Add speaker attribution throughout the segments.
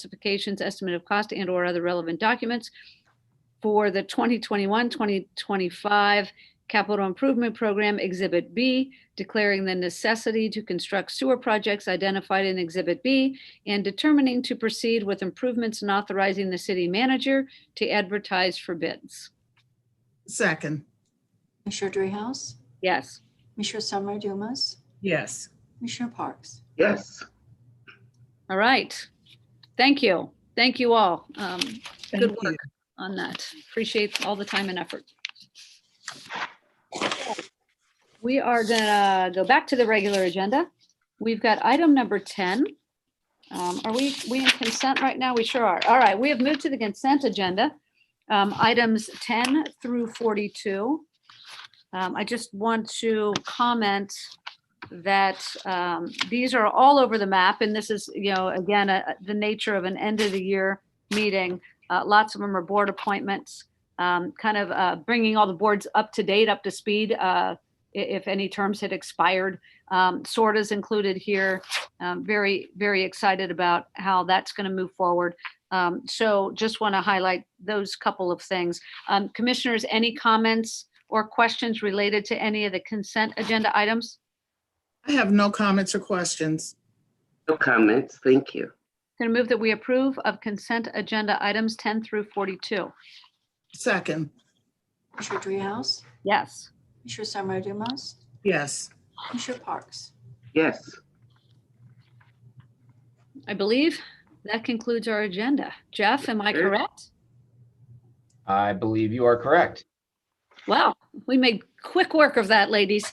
Speaker 1: specifications, estimate of cost and or other relevant documents for the 2021, 2025 capital improvement program Exhibit B, declaring the necessity to construct sewer projects identified in Exhibit B and determining to proceed with improvements and authorizing the city manager to advertise for bids.
Speaker 2: Second,
Speaker 3: Commissioner Dreehouse?
Speaker 1: Yes.
Speaker 3: Commissioner Summer Dumas?
Speaker 2: yes.
Speaker 3: Commissioner Parks?
Speaker 4: Yes.
Speaker 1: All right. Thank you. Thank you all um,
Speaker 2: Thank
Speaker 1: work.
Speaker 2: you.
Speaker 1: on that. Appreciate all the time and effort. We are gonna go back to the regular agenda. We've got item number 10. Um, Are we, we in consent right now? We sure are. All right, we have moved to the consent agenda. um, Items 10 through 42. Um, I just want to comment that um, these are all over the map, and this is, you know, again, uh, the nature of an end of the year meeting. Uh, Lots of them are board appointments, um, kind of uh, bringing all the boards up to date, up to speed, uh, i- if any terms had expired. Um, SORTA's included here. Um, Very, very excited about how that's going to move forward. Um, So just want to highlight those couple of things. Um, Commissioners, any comments or questions related to any of the consent agenda items?
Speaker 2: I have no comments or questions.
Speaker 4: No comments. Thank you.
Speaker 1: Going to move that we approve of consent agenda items 10 through 42.
Speaker 2: Second,
Speaker 3: Commissioner Dreehouse?
Speaker 1: Yes.
Speaker 3: Commissioner Summer Dumas?
Speaker 2: yes.
Speaker 3: Commissioner Parks?
Speaker 4: Yes.
Speaker 1: I believe that concludes our agenda. Jeff, am I
Speaker 4: Sure.
Speaker 1: correct?
Speaker 5: I believe you are correct.
Speaker 1: Wow, we made quick work of that, ladies.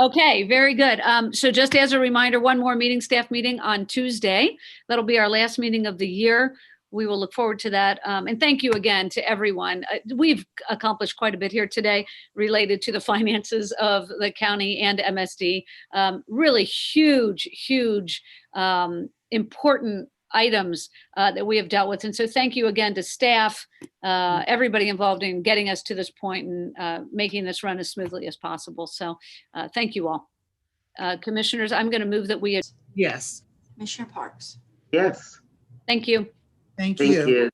Speaker 1: Okay, very good. Um, so just as a reminder, one more meeting, staff meeting on Tuesday. That'll be our last meeting of the year. We will look forward to that. Um, and thank you again to everyone. Uh, We've accomplished quite a bit here today related to the finances of the county and MSD. Um, really huge, huge, um, important items, uh, that we have dealt with. And so thank you again to staff, uh, everybody involved in getting us to this point and, uh, making this run as smoothly as possible. So, uh, Thank you all. Uh, Commissioners, I'm going to move that we,
Speaker 2: Yes,
Speaker 3: Commissioner Parks?
Speaker 4: Yes.
Speaker 1: thank you.
Speaker 2: thank
Speaker 4: Thank
Speaker 2: you.
Speaker 4: you.